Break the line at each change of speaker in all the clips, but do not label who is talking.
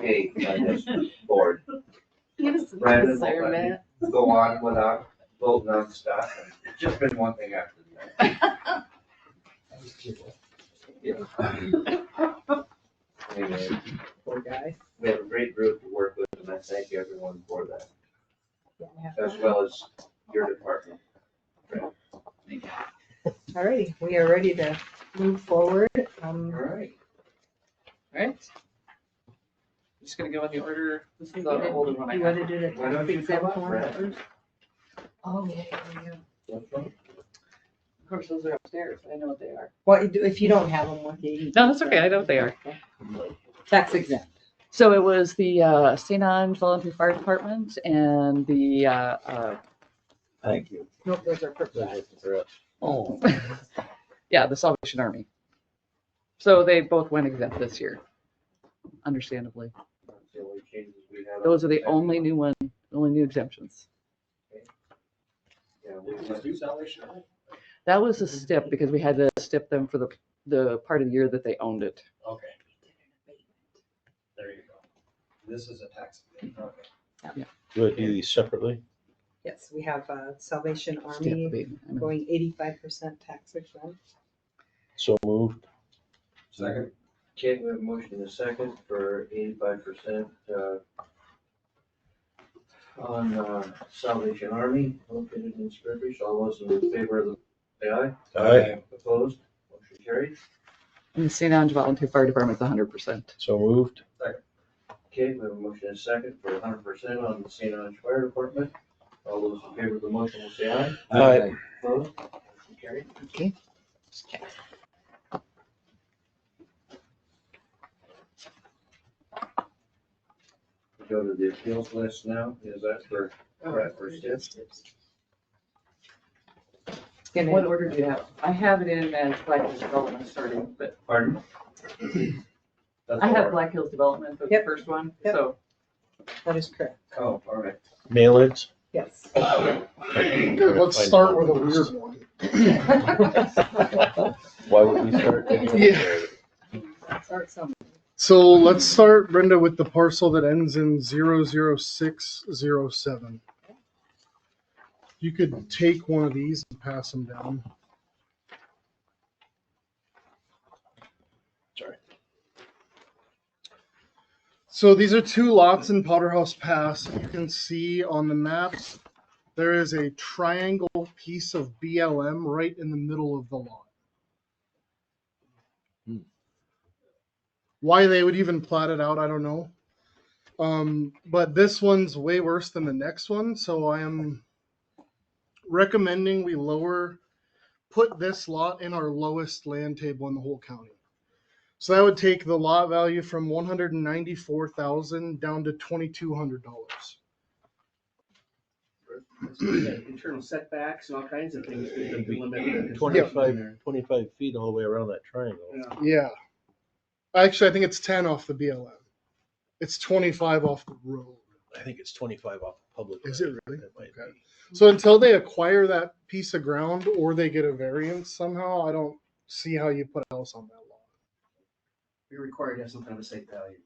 eight on this board.
Give us some
Brandon will
concern,
let me-
Matt.
Go on without voting on stuff, and it's just been one thing after the other. Anyway,
Poor guy.
we have a great group to work with, and I thank everyone for that, as well as your department.
Alrighty, we are ready to move forward. Um,
right.
Right? Just gonna go in the order, this is the older one I
you
had.
wanna do the
Why don't
tax
you come
exempt
up,
one
Brad?
first?
Oh, yeah, yeah, yeah. Of course, those are upstairs, I know what they are.
Well, you do- if you don't have them with you. you
No,
can-
that's okay, I know what they are.
Tax exempt.
So it was the uh, St. Ange Volunteer Fire Department and the, uh, uh,
Thank you.
Nope, those are purple.
oh, yeah, the Salvation Army. So they both went exempt this year, understandably. Those are the only new one, only new exemptions.
Yeah, we went-
That was a stip because we had to stip them for the, the part of the year that they owned it.
Okay. There you go. This is a tax. abatement. Okay.
Do I do these separately?
Yes, we have uh, Salvation
Stip
Army
abatement, I know.
going eighty-five percent tax exempt.
So moved.
Second.
Okay, we have a motion in a second for eighty-five percent, uh, on, uh, Salvation Army located in Spearfish. All those in favor of the, say aye.
Aye.
Opposed? Motion carried.
And the St. Ange Volunteer Fire Department's hundred percent.
So moved.
Okay, we have a motion in a second for hundred percent on the St. Ange Fire Department. All those in favor of the motion will say aye.
Aye.
Opposed? Motion carried.
Okay.
We Go to the appeals list now. Is that for, Brad for Stip?
Gonna-
What order do you have? I have it in as Black Hills Development starting, but
Pardon? That's
I have
all right.
Black Hills Development, the
Yep.
first one,
Yep.
so.
That is correct,
Oh, all right.
Mailings.
yes.
Let's start with a weird one.
Why would we start?
Yeah.
Start somewhere.
So let's start, Brenda, with the parcel that ends in 00607. You could take one of these and pass them down.
Sorry.
So these are two lots in Potterhouse Pass. You can see on the maps, there is a triangle piece of BLM right in the middle of the lot. why they would even plot it out, I don't know. Um, but this one's way worse than the next one, so I am recommending we lower, put this lot in our lowest land table in the whole county. So that would take the lot value from one hundred and ninety-four thousand down to twenty-two hundred dollars.
internal setbacks and all kinds of things. that could limit the-
Twenty-five, twenty-five feet all the way around that triangle.
Yeah.
Yeah. Actually, I think it's ten off the BLM. It's twenty-five off the road.
I think it's twenty-five off the public.
Is it
road.
really?
That might
Okay.
be.
So until they acquire that piece of ground or they get a variance somehow, I don't see how you put a house on that lot.
You're required to have some kind of a safe value.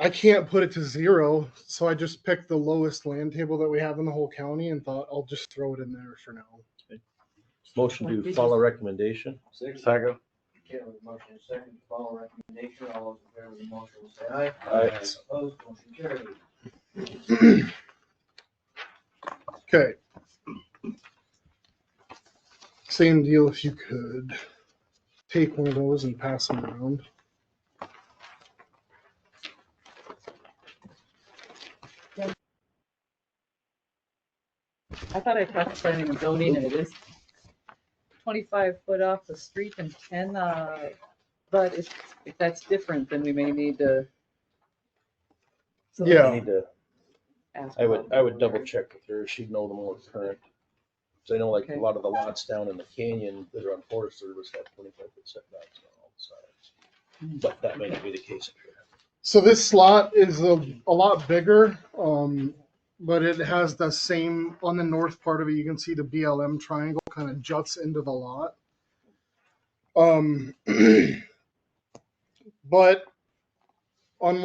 I can't put it to zero, so I just picked the lowest land table that we have in the whole county and thought I'll just throw it in there for now.
Motion to follow recommendation.
Six.
Second.
Okay, we have a motion and a second to follow recommendation. All those in favor of the motion will say aye.
Aye.
Opposed, motion carried.
Okay. Same deal if you could take one of those and pass them around.
I thought I talked planning and zoning and it is twenty-five foot off the street and ten, uh, but if, if that's different, then we may need to. So
Yeah.
I need to-
ask
I would,
about
I would
that.
double check with her. She'd know the more current. So I know like a
Okay.
lot of the lots down in the canyon that are on Forest Service have twenty-five foot setbacks on all sides. But that may not be the case. up here.
So this lot is a, a lot bigger, um, but it has the same, on the north part of it, you can see the BLM triangle kind of juts into the lot. Um, but